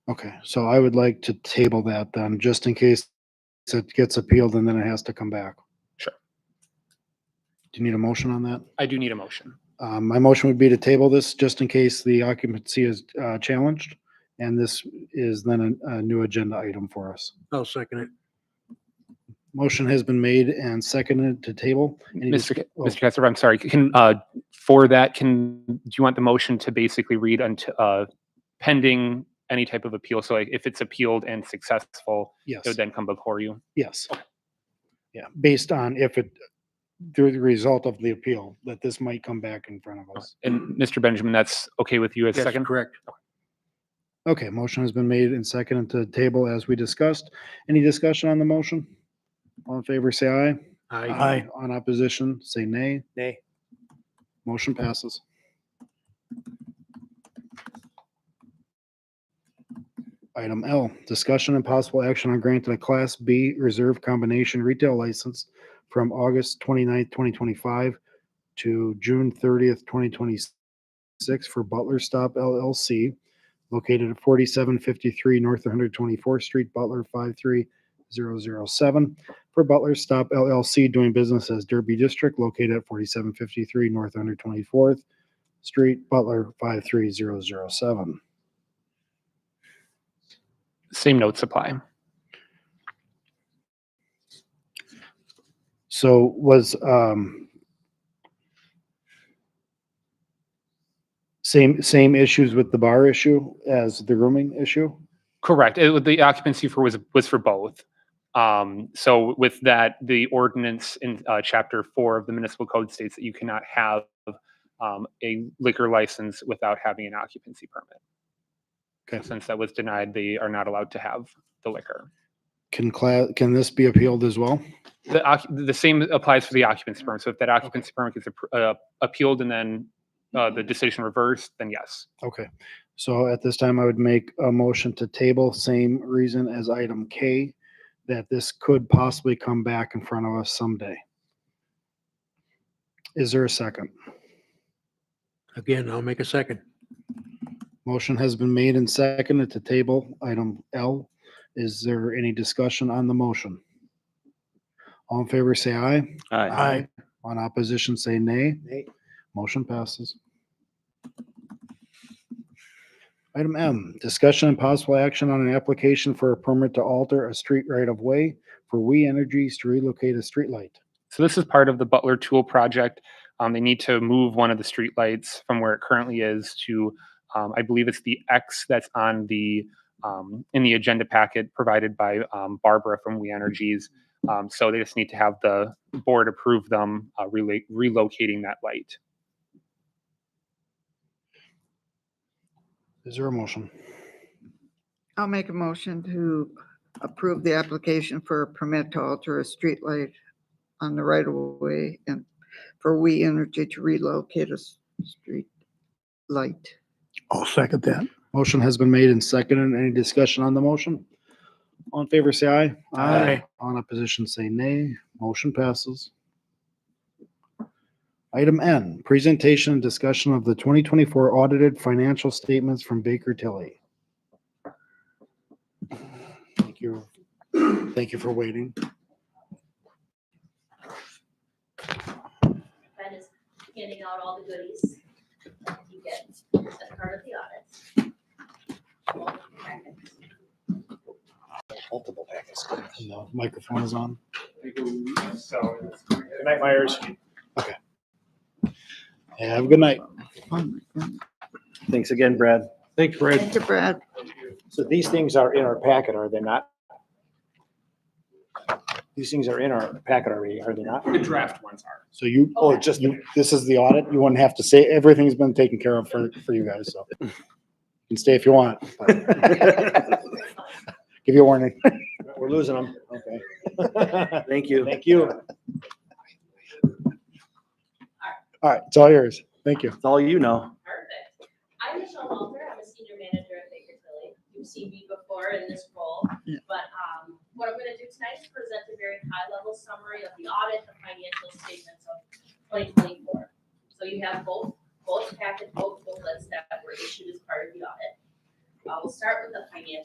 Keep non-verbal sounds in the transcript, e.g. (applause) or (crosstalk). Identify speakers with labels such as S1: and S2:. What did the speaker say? S1: Okay, so I would like to table that then, just in case it gets appealed and then it has to come back.
S2: Sure.
S1: Do you need a motion on that?
S2: I do need a motion.
S1: Um, my motion would be to table this just in case the occupancy is, uh, challenged. And this is then a, a new agenda item for us.
S3: I'll second it.
S1: Motion has been made and seconded to table. Any dis-
S2: Mr. Ca-
S1: oh.
S2: Mr. Kessler, I'm sorry, can, uh, for that, can, do you want the motion to basically read until, uh, pending any type of appeal? So like if it's appealed and successful,
S1: Yes,
S2: it would then come before you?
S1: yes. Yeah, based on if it, through the result of the appeal, that this might come back in front of us.
S2: And Mr. Benjamin, that's okay with you as
S3: That's
S2: second?
S3: Correct.
S1: Okay, motion has been made and seconded to table as we discussed. Any discussion on the motion? All in favor, say aye.
S3: Aye.
S1: On opposition, say nay.
S3: Nay.
S1: Motion passes. Item L, discussion and possible action on granting a Class B Reserve Combination Retail License from August 29th, 2025 to June 30th, 2026 for Butler Stop LLC located at 4753 North 124th Street, Butler 53007 for Butler Stop LLC doing business as Derby District located at 4753 North 124th Street, Butler 53007.
S2: Same notes apply.
S1: So was um same same issues with the bar issue as the rooming issue?
S2: Correct. It, would- the occupancy for was, was for both. Um, so with that, the ordinance in, uh, chapter four of the municipal code states that you cannot have, um, a liquor license without having an occupancy permit.
S1: Okay.
S2: Since that was denied, they are not allowed to have the liquor.
S1: Can class can this be appealed as well?
S2: The, occu- the same applies for the occupancy permit. So if that occupancy permit gets appro- uh, appealed and then, uh, the decision reversed, then yes.
S1: Okay, so at this time, I would make a motion to table, same reason as item K, that this could possibly come back in front of us someday. Is there a second?
S3: Again, I'll make a second.
S1: Motion has been made and seconded to table item L. Is there any discussion on the motion? All in favor, say aye.
S3: Aye.
S1: On opposition, say nay. Nay. Motion passes. Item M, discussion and possible action on an application for a permit to alter a street right-of-way for We Energies to relocate a streetlight.
S2: So this is part of the Butler Tool Project. Um, they need to move one of the streetlights from where it currently is to, um, I believe it's the X that's on the, um, in the agenda packet provided by, um, Barbara from We Energies. Um, so they just need to have the board approve them, uh, rela- relocating that light.
S1: Is there a motion?
S4: I'll make a motion to approve the application for a permit to alter a streetlight on the right of way and for We Energy to relocate a s- street light.
S3: I'll second that.
S1: Motion has been made and seconded. Any discussion on the motion? All in favor, say aye.
S3: Aye.
S1: On opposition, say nay. Motion passes. Item N, presentation and discussion of the 2024 audited financial statements from Baker Tilly. Thank you. Thank you for waiting.
S5: Fred is handing out all the goodies that you get as part of the audit. Well, practice.
S1: And the Microphone is on.
S6: So, good night, Myers.
S1: Have a good night.
S4: Oh my goodness.
S6: Thanks again, Brad.
S3: Thanks, Fred.
S4: Thank you, Brad.
S6: So these things are in our packet, are they not? These things are in our packet already, are they not?
S2: The draft ones are.
S1: So you, oh, just, you- this is the audit. You wouldn't have to say, everything's been taken care of for, for you guys, so. You can stay if you want. but (laughs) Give you a warning.
S6: We're losing them. Okay.
S3: Thank you.
S6: Thank you.
S1: All right, it's all yours. Thank you.
S3: It's all you know.
S5: Perfect. I'm Michelle Walter. I'm a senior manager at Baker Tilly. You've seen me before in this role.
S4: Yeah.
S5: But um, what I'm going to do tonight is present a very high-level summary of the audit, the financial statements of 2024. So you have both, both packets, both booklets that were issued as part of the audit. Uh, We'll start with the financial